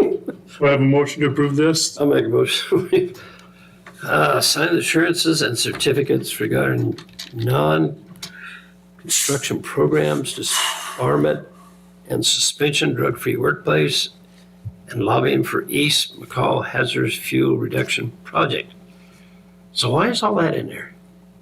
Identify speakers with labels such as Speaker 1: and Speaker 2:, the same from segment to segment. Speaker 1: Do I have a motion to approve this?
Speaker 2: I'll make a motion. Uh, sign assurances and certificates regarding non-construction programs, disarmament and suspension, drug-free workplace, and lobbying for East McCall Hazardous Fuel Reduction Project. So why is all that in there?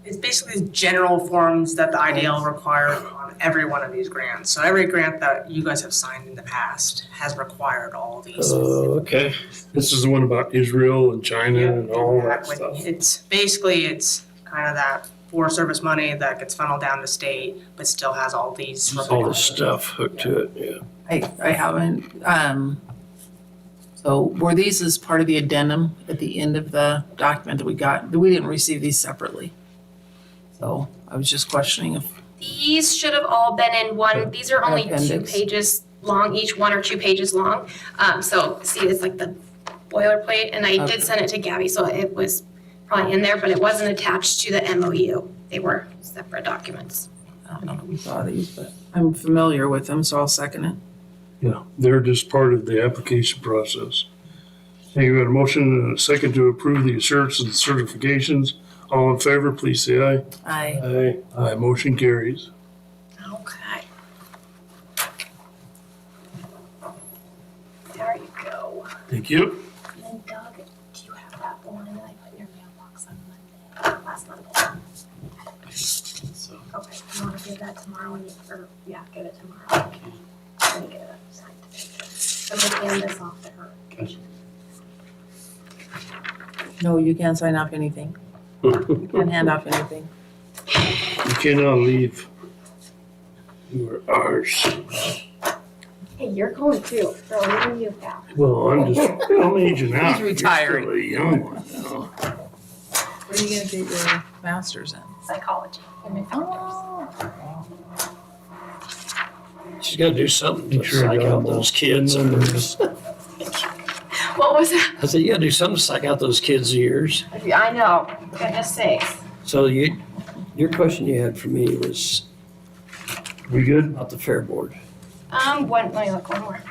Speaker 3: It's basically general forms that the IDL require on every one of these grants. So every grant that you guys have signed in the past has required all these.
Speaker 1: Uh,
Speaker 2: Oh, okay.
Speaker 1: This is the one about Israel and China and all that
Speaker 3: When
Speaker 1: stuff.
Speaker 3: It's, basically, it's kind of that Forest Service money that gets funneled down to state, but still has all these.
Speaker 2: All the stuff hooked to it, yeah.
Speaker 4: I, I haven't, um, so were these as part of the addendum at the end of the document that we got? We didn't receive these separately. So I was just questioning if,
Speaker 5: These should have all been in one, these are only two
Speaker 4: Appendix.
Speaker 5: pages long, each one or two pages long. Um, so see, it's like the boilerplate, and I
Speaker 4: Okay.
Speaker 5: did send it to Gabby, so it was probably in there, but it wasn't attached to the MOU. They were separate documents.
Speaker 4: I don't know if we saw these, but I'm familiar with them, so I'll second it.
Speaker 1: Yeah, they're just part of the application process. Hey, you got a motion and a second to approve the assurances and certifications. All in favor, please say aye.
Speaker 4: I,
Speaker 1: Aye. Aye, motion carries.
Speaker 5: Okay. There you go.
Speaker 1: Thank you.
Speaker 5: And then Doug, do you have that one that I put in your mailbox on Monday, last Monday? Okay, you wanna give that tomorrow when you, or, yeah, give it tomorrow. Okay. Let me get it signed today. I'm gonna hand this off to her.
Speaker 4: no, you can't sign off anything. You can't hand off anything.
Speaker 1: You cannot leave. You are ours.
Speaker 5: Hey, you're going too, so I'm gonna you back.
Speaker 1: Well, I'm just, I'm aging out.
Speaker 4: He's retiring.
Speaker 1: You're still a young one now.
Speaker 4: Where are you gonna get your masters in?
Speaker 5: Psychology. human factors.
Speaker 2: She's gotta do something to
Speaker 1: Make sure I
Speaker 2: psych
Speaker 1: got
Speaker 2: out
Speaker 1: them all.
Speaker 2: those kids. I
Speaker 5: What was that?
Speaker 2: said, you gotta do something to psych out those kids' ears.
Speaker 5: I know, goodness sakes.
Speaker 2: So you, your question you had for me was
Speaker 1: We good?
Speaker 2: about the fair board.
Speaker 5: Um, one, let me look one more.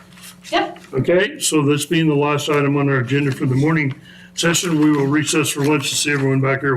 Speaker 5: Yep,
Speaker 1: Okay, so this being the last item on our agenda for the morning session, we will recess for lunch to see everyone back here